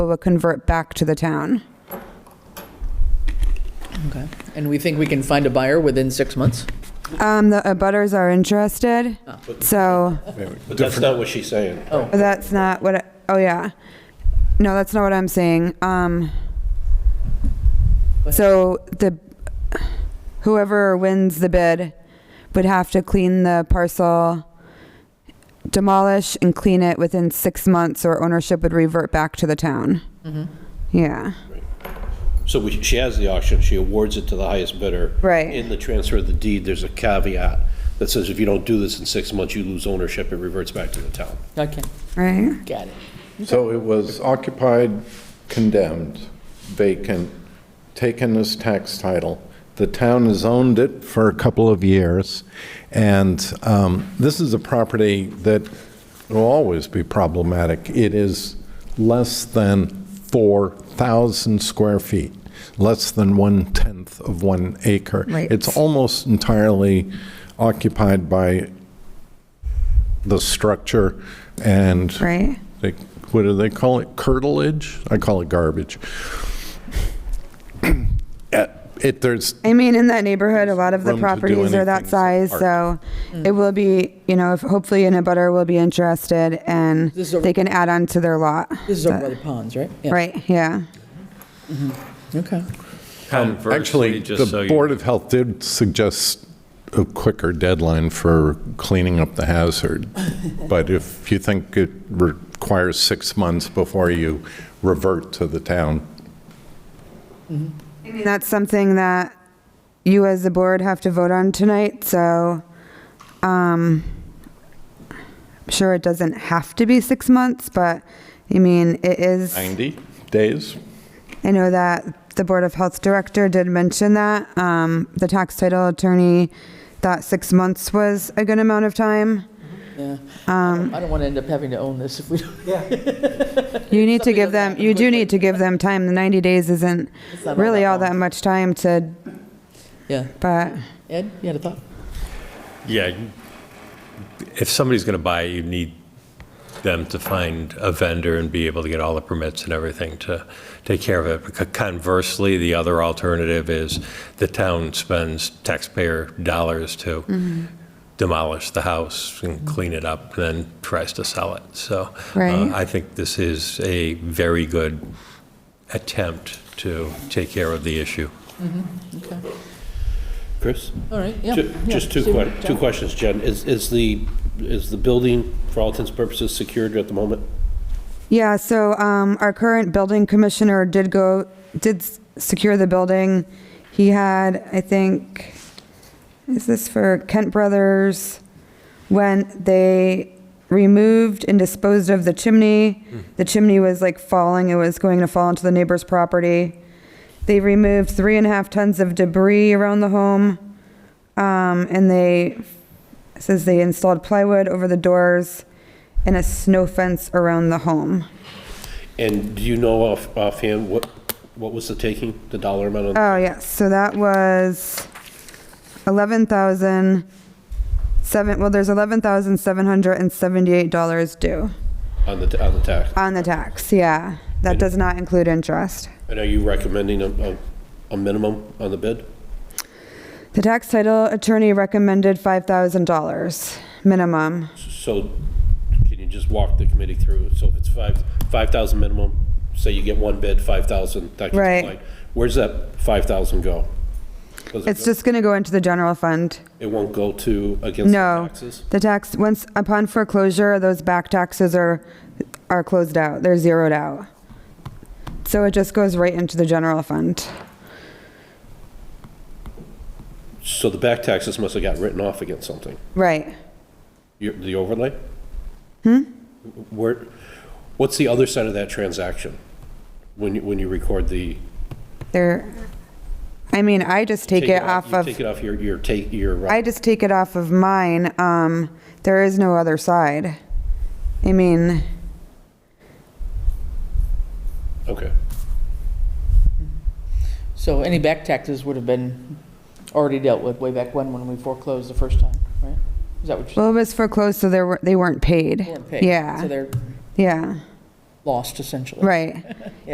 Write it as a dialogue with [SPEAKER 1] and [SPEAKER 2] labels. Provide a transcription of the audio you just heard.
[SPEAKER 1] will convert back to the town.
[SPEAKER 2] Okay. And we think we can find a buyer within six months?
[SPEAKER 1] Um, the abutters are interested, so
[SPEAKER 3] But that's not what she's saying.
[SPEAKER 1] but that's not what, I- oh yeah. No, that's not what I'm saying. Um, so the, whoever wins the bid would have to clean the parcel, demolish and clean it within six months or ownership would revert back to the town. Yeah,
[SPEAKER 3] So we- she has the auction, she awards it to the highest bidder.
[SPEAKER 1] Right.
[SPEAKER 3] In the transfer of the deed, there's a caveat that says if you don't do this in six months, you lose ownership, it reverts back to the town.
[SPEAKER 2] Okay,
[SPEAKER 1] right?
[SPEAKER 2] got it.
[SPEAKER 4] So it was occupied, condemned, vacant, taken as tax title. The town has owned it for a couple of years, and um, this is a property that will always be problematic. It is less than 4,000 square feet, less than one-tenth of one acre.
[SPEAKER 1] Right.
[SPEAKER 4] It's almost entirely occupied by the structure and
[SPEAKER 1] Right?
[SPEAKER 4] they, what do they call it? Curtilage? I call it garbage. Uh, It, there's,
[SPEAKER 1] I mean, in that neighborhood, a lot of the
[SPEAKER 4] room to do
[SPEAKER 1] properties are that
[SPEAKER 4] anything
[SPEAKER 1] size,
[SPEAKER 4] as
[SPEAKER 1] so
[SPEAKER 4] a
[SPEAKER 2] Mm.
[SPEAKER 1] it will be, you know, if hopefully an abutter will be interested and
[SPEAKER 2] This is a-
[SPEAKER 1] they can add on to their lot.
[SPEAKER 2] This is over by the ponds, right? Yeah.
[SPEAKER 1] Right, yeah.
[SPEAKER 2] Okay.
[SPEAKER 4] Um, actually,
[SPEAKER 5] Actually,
[SPEAKER 4] the Board of Health did suggest a quicker deadline for cleaning up the hazard. But if you think it requires six months before you revert to the town,
[SPEAKER 1] I mean, that's something that you as the board have to vote on tonight, so, um, I'm sure it doesn't have to be six months, but, I mean, it is.
[SPEAKER 4] 90 days?
[SPEAKER 1] I know that the Board of Health Director did mention that. Um, The tax title attorney thought six months was a good amount of time.
[SPEAKER 2] Yeah. I don't want to end up having to own this if we don't.
[SPEAKER 1] You need to
[SPEAKER 2] Something
[SPEAKER 1] give
[SPEAKER 2] doesn't
[SPEAKER 1] them,
[SPEAKER 2] happen
[SPEAKER 1] you do
[SPEAKER 2] quickly.
[SPEAKER 1] need to give them time. The 90 days isn't
[SPEAKER 2] not all
[SPEAKER 1] really
[SPEAKER 2] that
[SPEAKER 1] all that
[SPEAKER 2] long.
[SPEAKER 1] much time to,
[SPEAKER 2] Yeah.
[SPEAKER 1] but,
[SPEAKER 2] Ed, you had a thought?
[SPEAKER 5] Yeah, you- if somebody's going to buy, it, you need them to find a vendor and be able to get all the permits and everything to take care of it. Because Conversely, the other alternative is the town spends taxpayer dollars to demolish the house and clean it up, then tries to sell it. So
[SPEAKER 1] Right.
[SPEAKER 5] uh, I think this is a very good attempt to take care of the issue.
[SPEAKER 2] Okay.
[SPEAKER 3] Chris?
[SPEAKER 2] All right, yeah.
[SPEAKER 3] Ju-
[SPEAKER 2] yeah.
[SPEAKER 3] Just two
[SPEAKER 2] See what-
[SPEAKER 3] que, two questions, Jen. Is, is the, is the building, for all intents and purposes, secured at the moment?
[SPEAKER 1] yeah, so um, our current building commissioner did go, did s- secure the building. He had, I think, is this for Kent Brothers? When they removed and disposed of the chimney, the chimney was like falling, it was going to fall into the neighbor's property. They removed three and a half tons of debris around the home. Um, and they, it says they installed plywood over the doors and a snow fence around the home.
[SPEAKER 3] And do you know off, offhand what, what was the taking, the dollar amount on?
[SPEAKER 1] Oh, yes, so that was 11,000, seven, well, there's $11,778 due.
[SPEAKER 3] on the, on the tax.
[SPEAKER 1] On the tax, yeah. That does not include interest.
[SPEAKER 3] And are you recommending a, a, a minimum on the bid?
[SPEAKER 1] The tax title attorney recommended $5,000 minimum.
[SPEAKER 3] So can you just walk the committee through? So if it's five, 5,000 minimum, say you get one bid, 5,000, that gets
[SPEAKER 1] Right.
[SPEAKER 3] applied. Where's that 5,000 go? Does it
[SPEAKER 1] It's
[SPEAKER 3] go-
[SPEAKER 1] just going to go into the general fund.
[SPEAKER 3] It won't go to against the
[SPEAKER 1] No.
[SPEAKER 3] taxes?
[SPEAKER 1] The tax, once, upon foreclosure, those back taxes are, are closed out. They're zeroed out. So it just goes right into the general fund.
[SPEAKER 3] So the back taxes must have got written off against something.
[SPEAKER 1] Right.
[SPEAKER 3] Your- The overlay? Hmm? Where, what's the other side of that transaction? When you, when you record the.
[SPEAKER 1] They're, I mean, I just take it off
[SPEAKER 3] you
[SPEAKER 1] of,
[SPEAKER 3] Take it off your, your take, your. uh,
[SPEAKER 1] I just take it off of mine. Um, there is no other side. I mean,
[SPEAKER 3] Okay.
[SPEAKER 2] So any back taxes would have been already dealt with way back when, when we foreclosed the first time, right? Is that what you're
[SPEAKER 1] well, it was foreclosed, so they were, they weren't paid.
[SPEAKER 2] saying? They weren't paid. So
[SPEAKER 1] Yeah,
[SPEAKER 2] they're,
[SPEAKER 1] yeah.
[SPEAKER 6] lost essentially.
[SPEAKER 2] Right.